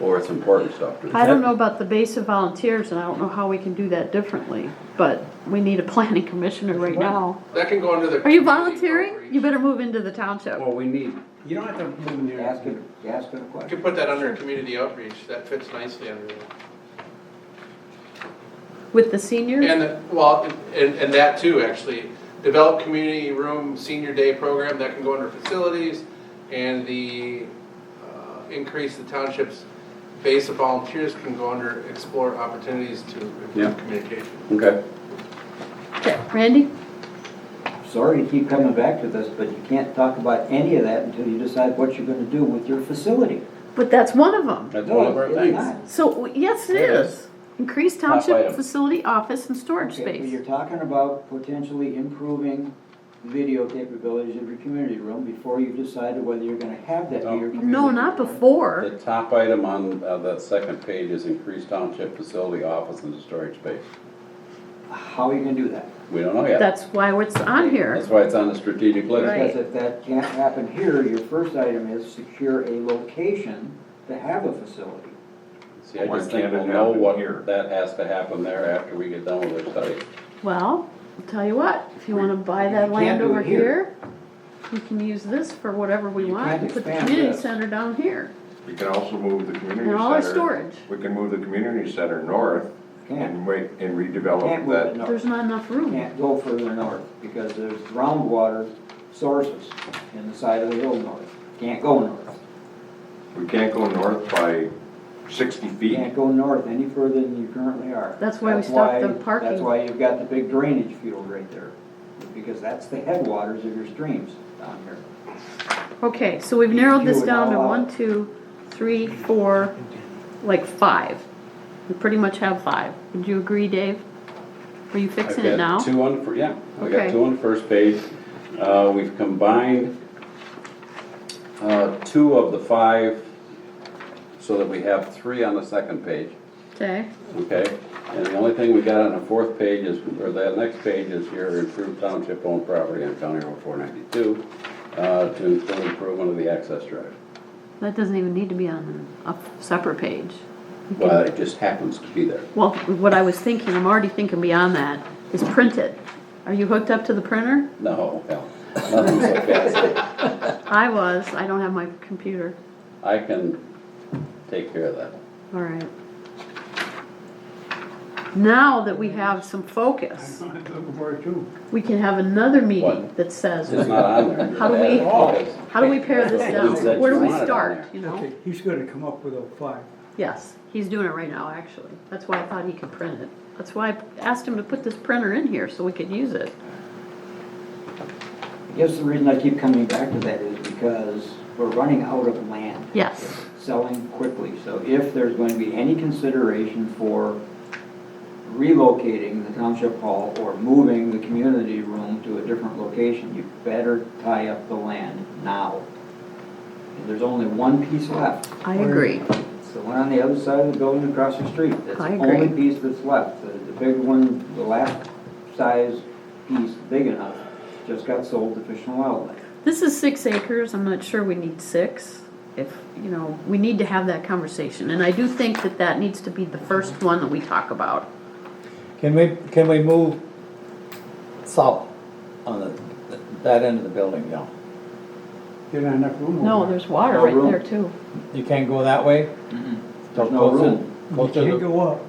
or it's important stuff. too. I don't know about the base of volunteers, and I don't know how we can do that differently, but we need a planning commissioner right now. That can go under the. Are you community volunteering? outreach. You better move into the township. Well, we need, You don't have to move in there. ask it, ask it a You question. could put that under community outreach, that fits nicely under there. With the seniors? And, well, and, and that too, actually, develop community room senior day program, that can go under facilities, and the, uh, increase the township's base of volunteers can go under explore opportunities to Yeah. improve communication. Okay, Okay, Randy? Sorry to keep coming back to this, but you can't talk about any of that until you decide what you're gonna do with your facility. But that's one of them. that's one of No, our it's things. not. So, yes, it It is. Increase Top township item. facility, office, and storage Okay, but you're space. talking about potentially improving video capabilities of your community room before you've decided whether you're gonna have that in your community. No, not room. before. The top item on uh, that second page is increased township facility, office, and storage space. How are you gonna do that? We don't know yet. That's why it's on here. That's why it's on the strategic list. Right. Because if that can't happen here, your first item is secure a location to have a facility. See, I Why just think can't it we'll know happen what, here? that has to happen there after we get done with our study. Well, I'll tell you what, if you wanna buy that You can't land do it over here. here, we can use this for whatever we You want, can't and put the expand community this. center down here. You can also move the community center. And all our storage. We can move the community center north Can't, and wait, can't and redevelop move it that. There's north, not enough room. can't go further north, because there's groundwater sources in the side of the hill north. Can't go north, We can't go north by sixty can't feet. go north any further than you currently are. That's why we That's stopped the why- parking. That's why you've got the big drainage field right there, because that's the headwaters of your streams down here. Okay, so we've narrowed this You would down to allow- one, two, three, four, like five. We pretty much have five. Would you agree, Dave? Are you I've fixing it now? got two on, fir- yeah, I got Okay. two on the first page. Uh, we've combined, uh, two of the five so that we have three on the second page, Okay, okay? And the only thing we got on the fourth page is, or that next page is your improved township owned property on County Road four ninety-two, uh, to include improvement of the access drive. that doesn't even need to be on a separate page. You can- Well, it just happens to be there. Well, what I was thinking, I'm already thinking beyond that, is print it. Are you hooked up to the printer? No, hell, nothing's so fancy. I was, I don't have my computer. I can take care of that. All right. Now that we have some focus, I'm looking for it too. we can have another meeting What? that says, It's not on there. How do we- Because- how do we pare this It down? said you Where do we want it on start, there. you know? Okay, he's gonna come up with a five. Yes, he's doing it right now, actually. That's why I thought he could print it. That's why I asked him to put this printer in here so we could use it. I guess the reason I keep coming back to that is because we're running out of land. Yes. Selling quickly, so if there's going to be any consideration for relocating the township hall or moving the community room to a different location, you better tie up the land now. And There's only one piece left. I agree. It's the one on the other side of the building across the street. That's I the agree. only piece that's left. The, the big one, the last size piece, big enough, just got sold to Fish and Wildlife. This is six acres, I'm not sure we need six. If, you know, we need to have that conversation, and I do think that that needs to be the first one that we talk about. Can we, can we move south on the, that end of the building now? There's not enough room over No, there. there's water No right room. there too. You can't go that way? There's no room. Go You to can't the, go up.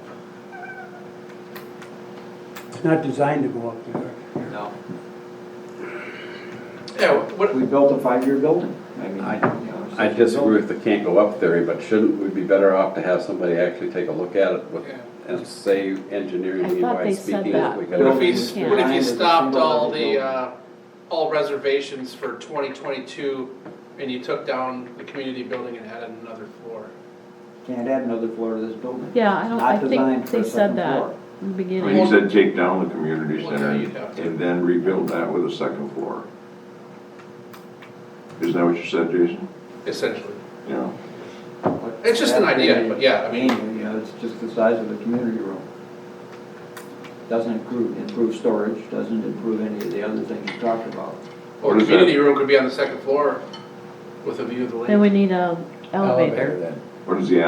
It's not designed to go up there. No. Yeah, what, We built a five-year building. I mean, I- you know, it's I just a disagree building. with the can't go up theory, but shouldn't we be better off to have somebody actually take a look at it with- Yeah. and say engineeringly I thought they wise said speaking? that. if we could- what if Building you, is what if you behind the stopped single all level the, building. uh, all reservations for twenty twenty-two and you took down the community building and added another floor? Can't add another floor to this building. Yeah, I don't, I Not think designed for a they said second that floor. in the Well, He beginning. said take down the community Well, center yeah, you'd have to. and then rebuild that with a second floor. Isn't that what you said, Jason? Essentially, Yeah. But It's just an that idea, really but yeah, I mean- ain't, You know, it's just the size of the community room. Doesn't improve, improve storage, doesn't improve any of the other things you talked about. or the What is that? community room could be on the second floor with a view of the lake. Then we need a elevator. elevator then. What is the